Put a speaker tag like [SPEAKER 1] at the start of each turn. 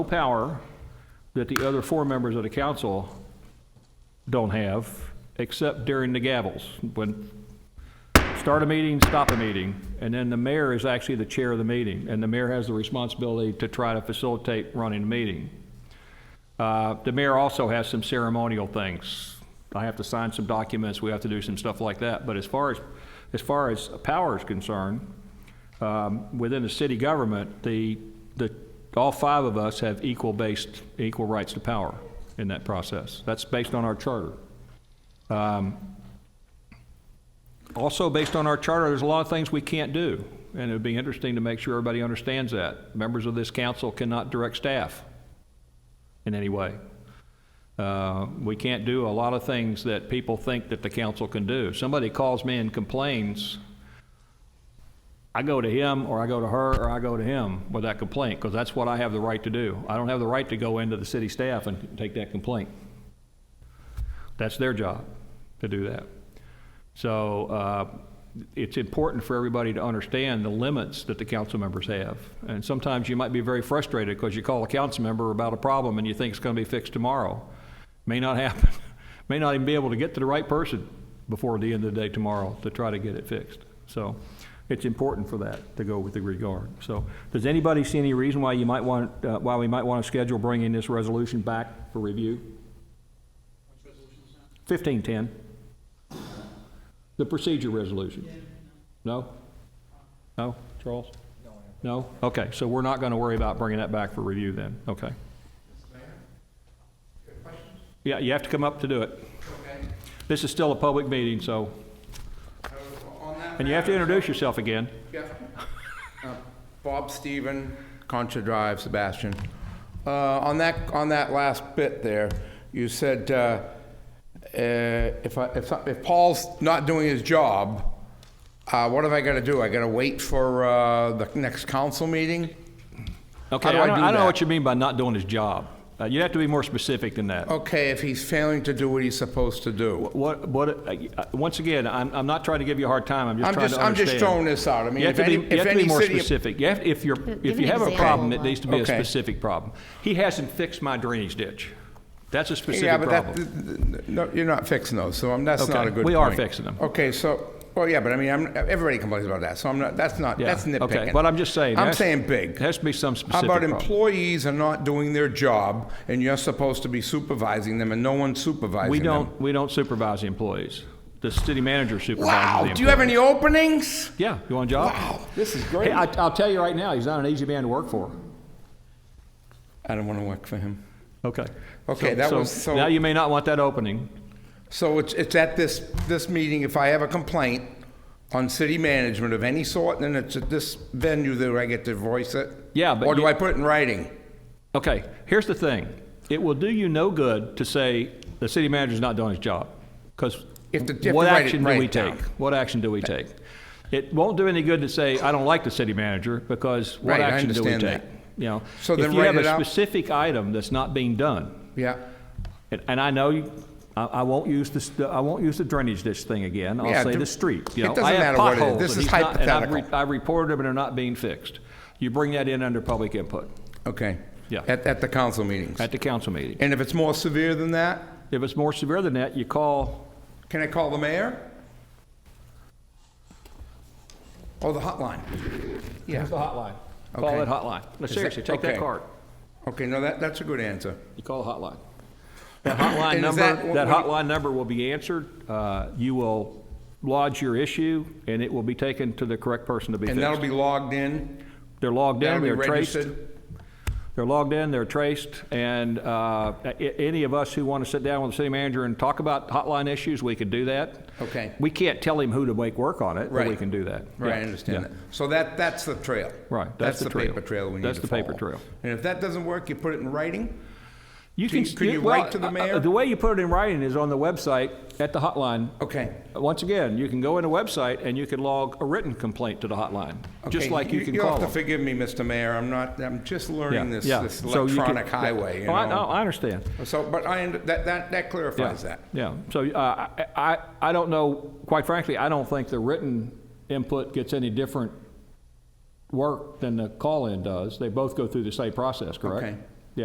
[SPEAKER 1] power that the other four members of the council don't have, except during the gavels, when, start a meeting, stop a meeting, and then the mayor is actually the chair of the meeting, and the mayor has the responsibility to try to facilitate running the meeting. Uh, The mayor also has some ceremonial things. I have to sign some documents, we have to do some stuff like that, but as far as, as far as power is concerned, um, within the city government, the, the, all five of us have equal based, equal rights to power in that process. That's based on our charter. Um, Also, based on our charter, there's a lot of things we can't do, and it'd be interesting to make sure everybody understands that. Members of this council cannot direct staff in any way. Uh, We can't do a lot of things that people think that the council can do. Somebody calls me and complains, I go to him, or I go to her, or I go to him with that complaint, because that's what I have the right to do. I don't have the right to go into the city staff and take that complaint. That's their job to do that. So uh, it's important for everybody to understand the limits that the council members have. And sometimes you might be very frustrated because you call a council member about a problem and you think it's going to be fixed tomorrow. May not happen. May not even be able to get to the right person before the end of the day tomorrow to try to get it fixed. So it's important for that to go with the regard. So does anybody see any reason why you might want, uh, why we might want to schedule bringing this resolution back for review? Fifteen ten. The procedure resolution? No? No, Charles? No? Okay, so we're not going to worry about bringing that back for review then, okay? Yeah, you have to come up to do it.
[SPEAKER 2] Okay,
[SPEAKER 1] This is still a public meeting, so,
[SPEAKER 2] so on that.
[SPEAKER 1] and you have to
[SPEAKER 2] matter-
[SPEAKER 1] introduce yourself again.
[SPEAKER 2] Yeah. Uh, Bob Steven, Concha Drive, Sebastian. Uh, On that, on that last bit there, you said, uh, uh, if I, if, I- if Paul's not doing his job, uh, what am I gonna do? I gotta wait for uh, the next council meeting?
[SPEAKER 1] Okay,
[SPEAKER 2] How do I do
[SPEAKER 1] I don't know
[SPEAKER 2] that?
[SPEAKER 1] what you mean by not doing his job. Uh, You have to be more specific than that.
[SPEAKER 2] Okay, if he's failing to do what he's supposed to do.
[SPEAKER 1] What, what, uh, uh, once again, I'm, I'm not trying to give you a hard time, I'm just
[SPEAKER 2] I'm
[SPEAKER 1] trying
[SPEAKER 2] just,
[SPEAKER 1] to
[SPEAKER 2] I'm just throwing
[SPEAKER 1] understand.
[SPEAKER 2] this out. I mean,
[SPEAKER 1] You have
[SPEAKER 2] if
[SPEAKER 1] to be,
[SPEAKER 2] any,
[SPEAKER 1] you
[SPEAKER 2] if
[SPEAKER 1] have to be
[SPEAKER 2] any
[SPEAKER 1] more
[SPEAKER 2] city.
[SPEAKER 1] specific. You have, if you're, if
[SPEAKER 3] give
[SPEAKER 1] you
[SPEAKER 3] an
[SPEAKER 1] have a
[SPEAKER 3] example.
[SPEAKER 1] problem, it needs to be a
[SPEAKER 2] Okay.
[SPEAKER 1] specific problem. He hasn't fixed my drainage ditch. That's a
[SPEAKER 2] Yeah,
[SPEAKER 1] specific
[SPEAKER 2] but
[SPEAKER 1] problem.
[SPEAKER 2] that, no, you're not fixing those, so I'm- that's not
[SPEAKER 1] Okay,
[SPEAKER 2] a good
[SPEAKER 1] we are
[SPEAKER 2] point.
[SPEAKER 1] fixing them.
[SPEAKER 2] Okay, so, well, yeah, but I mean, I'm, everybody complains about that, so I'm not, that's not,
[SPEAKER 1] Yeah,
[SPEAKER 2] that's nitpicking.
[SPEAKER 1] okay, but I'm just saying,
[SPEAKER 2] I'm
[SPEAKER 1] that's-
[SPEAKER 2] saying
[SPEAKER 1] It
[SPEAKER 2] big.
[SPEAKER 1] has to be some specific
[SPEAKER 2] How about
[SPEAKER 1] problem.
[SPEAKER 2] employees are not doing their job, and you're supposed to be supervising them, and no one's supervising them?
[SPEAKER 1] We don't, we don't supervise the employees. The city manager supervises the
[SPEAKER 2] Wow,
[SPEAKER 1] employees.
[SPEAKER 2] do you have any openings?
[SPEAKER 1] Yeah, you want a job?
[SPEAKER 2] Wow, this is
[SPEAKER 1] Hey,
[SPEAKER 2] great.
[SPEAKER 1] I,
[SPEAKER 2] I
[SPEAKER 1] I'll tell you right now, he's not an easy man to work for.
[SPEAKER 2] don't want to work for him.
[SPEAKER 1] Okay.
[SPEAKER 2] Okay, that was so-
[SPEAKER 1] Now you may not want that opening.
[SPEAKER 2] So it's, it's at this, this meeting, if I have a complaint on city management of any sort, then it's at this venue that I get to voice it?
[SPEAKER 1] Yeah, but
[SPEAKER 2] Or do
[SPEAKER 1] you-
[SPEAKER 2] I put it in writing?
[SPEAKER 1] Okay, here's the thing. It will do you no good to say the city manager's not doing his job, because
[SPEAKER 2] If the- if
[SPEAKER 1] what
[SPEAKER 2] the right-
[SPEAKER 1] action do
[SPEAKER 2] right
[SPEAKER 1] we
[SPEAKER 2] down.
[SPEAKER 1] take? What action do we take? It won't do any good to say, I don't like the city manager, because what
[SPEAKER 2] Right, I
[SPEAKER 1] action do we
[SPEAKER 2] understand
[SPEAKER 1] take?
[SPEAKER 2] that.
[SPEAKER 1] You know,
[SPEAKER 2] So
[SPEAKER 1] if
[SPEAKER 2] then
[SPEAKER 1] you
[SPEAKER 2] write
[SPEAKER 1] have
[SPEAKER 2] it
[SPEAKER 1] a
[SPEAKER 2] out.
[SPEAKER 1] specific item that's not being done,
[SPEAKER 2] Yeah.
[SPEAKER 1] and, and I know, you- I, I won't use this, I won't use the drainage ditch thing again,
[SPEAKER 2] Yeah,
[SPEAKER 1] I'll say
[SPEAKER 2] dr-
[SPEAKER 1] the street, you
[SPEAKER 2] it
[SPEAKER 1] know. I
[SPEAKER 2] doesn't
[SPEAKER 1] have
[SPEAKER 2] matter what it is.
[SPEAKER 1] potholes,
[SPEAKER 2] This
[SPEAKER 1] and
[SPEAKER 2] is
[SPEAKER 1] he's not- and I've re-
[SPEAKER 2] hypothetical.
[SPEAKER 1] I've reported them and they're not being fixed. You bring that in under public input
[SPEAKER 2] Okay.
[SPEAKER 1] Yeah.
[SPEAKER 2] At, at the council meetings.
[SPEAKER 1] at the council meeting.
[SPEAKER 2] And if it's more severe than that,
[SPEAKER 1] If it's more severe than that, you call
[SPEAKER 2] can I call the mayor? Oh, the hotline. Yeah.
[SPEAKER 1] the hotline. Call
[SPEAKER 2] Okay.
[SPEAKER 1] that hotline. No,
[SPEAKER 2] that-
[SPEAKER 1] seriously, take that
[SPEAKER 2] okay.
[SPEAKER 1] card.
[SPEAKER 2] Okay, no, that, that's a good answer.
[SPEAKER 1] You call the hotline. That hotline
[SPEAKER 2] And is
[SPEAKER 1] number,
[SPEAKER 2] that-
[SPEAKER 1] that
[SPEAKER 2] what-
[SPEAKER 1] hotline number will be answered. Uh, You will lodge your issue, and it will be taken to the correct person to be
[SPEAKER 2] And that'll
[SPEAKER 1] fixed.
[SPEAKER 2] be logged in?
[SPEAKER 1] They're logged
[SPEAKER 2] That'll
[SPEAKER 1] in,
[SPEAKER 2] be
[SPEAKER 1] they're traced.
[SPEAKER 2] registered?
[SPEAKER 1] They're logged in, they're traced, and uh, a- any of us who want to sit down with the city manager and talk about hotline issues, we can do that.
[SPEAKER 2] Okay.
[SPEAKER 1] We can't tell him who to make work on it, but we
[SPEAKER 2] Right.
[SPEAKER 1] can do that.
[SPEAKER 2] Right, I
[SPEAKER 1] Yeah,
[SPEAKER 2] understand
[SPEAKER 1] yeah.
[SPEAKER 2] that. So that, that's the trail.
[SPEAKER 1] Right, that's the trail.
[SPEAKER 2] paper trail we need to
[SPEAKER 1] That's the paper
[SPEAKER 2] follow.
[SPEAKER 1] trail.
[SPEAKER 2] And if that doesn't work, you put it in writing?
[SPEAKER 1] You
[SPEAKER 2] Can-
[SPEAKER 1] can,
[SPEAKER 2] can you
[SPEAKER 1] well,
[SPEAKER 2] write to the
[SPEAKER 1] uh, uh,
[SPEAKER 2] mayor?
[SPEAKER 1] The way you put it in writing is on the website at the hotline.
[SPEAKER 2] Okay.
[SPEAKER 1] Once again, you can go in a website and you can log a written complaint to the hotline, just
[SPEAKER 2] Okay,
[SPEAKER 1] like you can
[SPEAKER 2] You'll
[SPEAKER 1] call
[SPEAKER 2] have to
[SPEAKER 1] them.
[SPEAKER 2] forgive me, Mr. Mayor, I'm not, I'm just learning
[SPEAKER 1] Yeah,
[SPEAKER 2] this,
[SPEAKER 1] yeah.
[SPEAKER 2] this
[SPEAKER 1] So you can-
[SPEAKER 2] electronic highway, you
[SPEAKER 1] Oh, I,
[SPEAKER 2] know?
[SPEAKER 1] I understand.
[SPEAKER 2] So, but I, under- that, that, that
[SPEAKER 1] Yeah,
[SPEAKER 2] clarifies that.
[SPEAKER 1] yeah. So uh, I, I, I don't know, quite frankly, I don't think the written input gets any different work than the call-in does. They both go through the same process, correct?
[SPEAKER 2] Okay.